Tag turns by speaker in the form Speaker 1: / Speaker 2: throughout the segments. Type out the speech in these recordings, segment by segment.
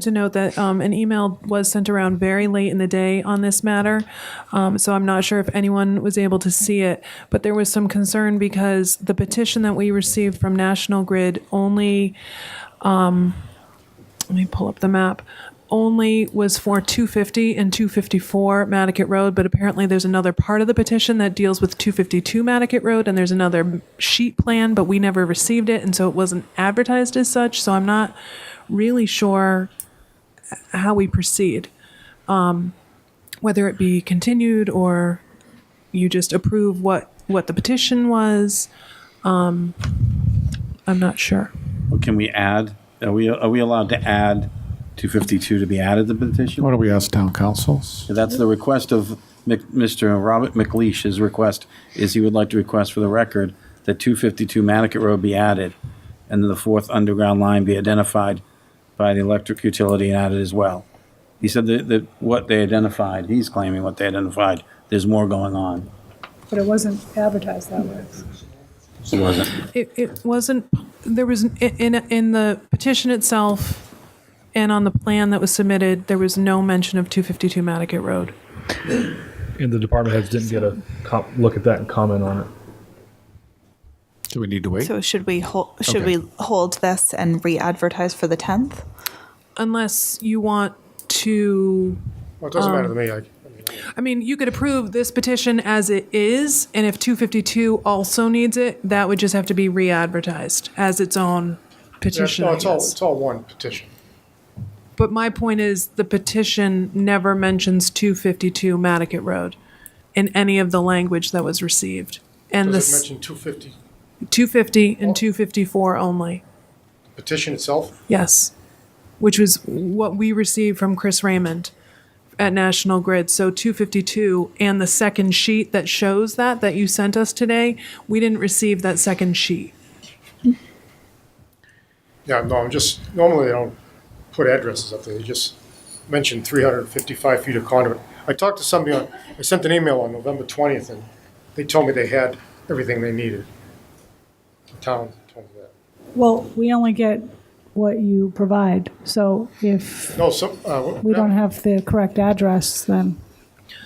Speaker 1: to note that um, an email was sent around very late in the day on this matter, um, so I'm not sure if anyone was able to see it, but there was some concern because the petition that we received from National Grid only, um, let me pull up the map, only was for 250 and 254 Matticat Road, but apparently there's another part of the petition that deals with 252 Matticat Road, and there's another sheet plan, but we never received it, and so it wasn't advertised as such, so I'm not really sure how we proceed, um, whether it be continued or you just approve what, what the petition was. Um, I'm not sure.
Speaker 2: Can we add, are we, are we allowed to add 252 to be added to the petition?
Speaker 3: Why don't we ask town councils?
Speaker 2: That's the request of Mc- Mr. Robert McLeish, his request is he would like to request for the record that 252 Manicat Road be added, and the fourth underground line be identified by the electric utility and added as well. He said that, that what they identified, he's claiming what they identified, there's more going on.
Speaker 4: But it wasn't advertised that way.
Speaker 2: It wasn't.
Speaker 1: It, it wasn't, there was, in, in, in the petition itself and on the plan that was submitted, there was no mention of 252 Matticat Road.
Speaker 5: and the department heads didn't get a cop, look at that and comment on it.
Speaker 3: Do we need to wait?
Speaker 6: So should we hold, should we hold this and re-advertise for the tenth?
Speaker 1: Unless you want to
Speaker 7: Well, it
Speaker 4: Um,
Speaker 7: doesn't matter to me. I,
Speaker 1: I mean, you could approve this petition as it is, and if 252 also needs it, that would just have to be re-advertised as its own petition,
Speaker 7: no,
Speaker 1: I
Speaker 7: it's all,
Speaker 1: guess.
Speaker 7: it's all one petition.
Speaker 1: But my point is, the petition never mentions 252 Matticat Road in any of the language that was received. And
Speaker 7: Does it
Speaker 1: this,
Speaker 7: mention 250
Speaker 1: 250 and 254 only,
Speaker 7: petition itself?
Speaker 1: yes. Which was what we received from Chris Raymond at National Grid. So 252 and the second sheet that shows that, that you sent us today, we didn't receive that second sheet.
Speaker 7: Yeah, no, I'm just, normally they don't put addresses up there. They just mention 355 feet of conduit. I talked to somebody on, I sent an email on November 20th, and they told me they had everything they needed. The town told me that.
Speaker 4: Well, we only get what you provide, so if
Speaker 7: No, so, uh,
Speaker 4: we don't have the correct address, then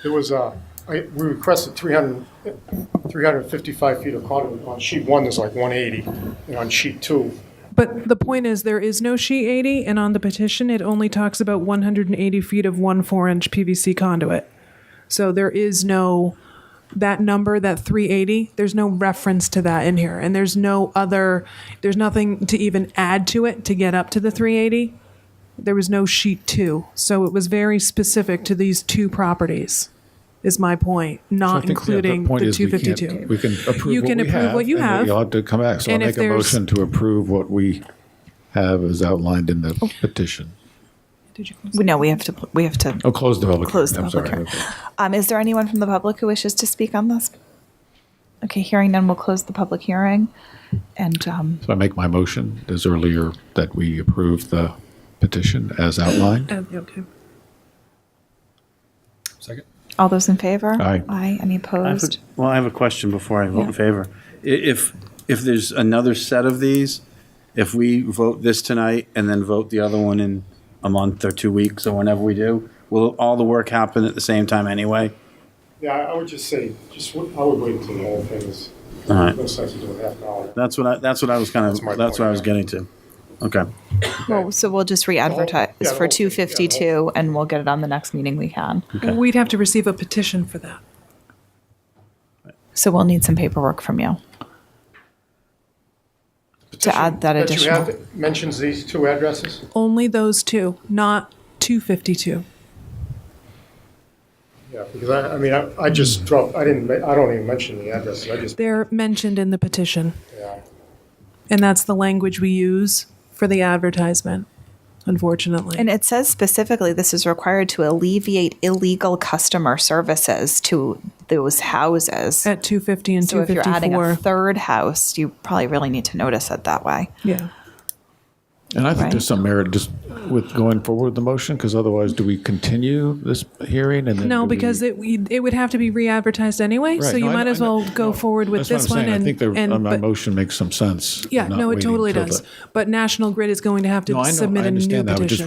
Speaker 7: There was, uh, I, we requested 300 355 feet of conduit. On sheet one, there's like 180, and on sheet two,
Speaker 1: But the point is, there is no sheet 80, and on the petition, it only talks about 180 feet of one four-inch PVC conduit. So there is no, that number, that 380, there's no reference to that in here, and there's no other, there's nothing to even add to it to get up to the 380. There was no sheet two, so it was very specific to these two properties, is my point,
Speaker 3: I
Speaker 1: not
Speaker 3: think, yeah, the
Speaker 1: Uh, including
Speaker 3: point
Speaker 1: the
Speaker 3: is we can't-
Speaker 1: 252.
Speaker 3: We can
Speaker 1: You
Speaker 3: approve what
Speaker 1: can
Speaker 3: we
Speaker 1: approve
Speaker 3: have.
Speaker 1: what you
Speaker 3: and
Speaker 1: have.
Speaker 3: You'll have to come back. So I'll
Speaker 1: And if
Speaker 3: make a
Speaker 1: there's-
Speaker 3: motion to approve what we have as outlined in
Speaker 1: Oh.
Speaker 3: the petition.
Speaker 6: No, we have to, we have
Speaker 3: Oh,
Speaker 6: to.
Speaker 3: close the public.
Speaker 6: Close the
Speaker 3: I'm
Speaker 6: public
Speaker 3: sorry.
Speaker 6: hearing. Um, is there anyone from the public who wishes to speak on this? Okay, hearing none, we'll close the public hearing. And, um,
Speaker 3: So I make my motion as earlier that we approve the petition as outlined.
Speaker 1: Uh, Okay.
Speaker 6: all those in favor?
Speaker 3: Aye.
Speaker 6: Aye, any
Speaker 2: I have a-
Speaker 6: opposed?
Speaker 2: Well, I have a question before I vote in favor. I- If, if there's another set of these, if we vote this tonight and then vote the other one in a month or two weeks or whenever we do, will all the work happen at the same time anyway?
Speaker 7: Yeah, I I would just say, just, w- I would wait until the whole thing is,
Speaker 2: All right.
Speaker 7: no sense in doing half an hour.
Speaker 2: That's what I, that's what I was kind of,
Speaker 7: That's my
Speaker 2: that's what I was getting to.
Speaker 7: point,
Speaker 2: Okay.
Speaker 6: Well, so we'll just
Speaker 7: yeah, the
Speaker 6: re-advertise for
Speaker 7: whole thing, yeah,
Speaker 6: two
Speaker 7: the whole-
Speaker 6: fifty-two and we'll get it on the next meeting we can.
Speaker 1: We'd have to receive a petition for that.
Speaker 6: So we'll need some paperwork from you.
Speaker 7: Petition
Speaker 6: add that
Speaker 7: you
Speaker 6: additional.
Speaker 7: have Mentions these two addresses?
Speaker 1: only those two, not 252.
Speaker 7: Yeah, because I, I mean, I, I just dropped, I didn't, ma- I don't even mention the addresses, I just,
Speaker 1: They're mentioned in the petition,
Speaker 7: yeah.
Speaker 1: and that's the language we use for the advertisement, unfortunately.
Speaker 6: And it says specifically this is required to alleviate illegal customer services to those houses.
Speaker 1: at 250 and
Speaker 6: So if you're adding a
Speaker 1: 254.
Speaker 6: third house, you probably really need to notice it that way.
Speaker 1: Yeah.
Speaker 3: And I think
Speaker 6: Right.
Speaker 3: there's some merit just with going forward with the motion, because otherwise do we continue this hearing and then?
Speaker 1: No,
Speaker 3: do we-
Speaker 1: because it we- it would have to be re-advertised anyway, so
Speaker 3: Right,
Speaker 1: you
Speaker 3: no, I
Speaker 1: might
Speaker 3: know-
Speaker 1: as
Speaker 3: I know-
Speaker 1: well go forward with
Speaker 3: That's what I'm
Speaker 1: this one
Speaker 3: saying. I
Speaker 1: and
Speaker 3: think the,
Speaker 1: and-
Speaker 3: uh, my
Speaker 1: but-
Speaker 3: motion makes some sense.
Speaker 1: Yeah,
Speaker 3: not
Speaker 1: no, it
Speaker 3: waiting
Speaker 1: totally
Speaker 3: till
Speaker 1: does.
Speaker 3: the-
Speaker 1: But National Grid is going to have
Speaker 3: No, I
Speaker 1: to
Speaker 3: know,
Speaker 1: submit
Speaker 3: I
Speaker 1: a new
Speaker 3: understand that. I was just
Speaker 1: petition.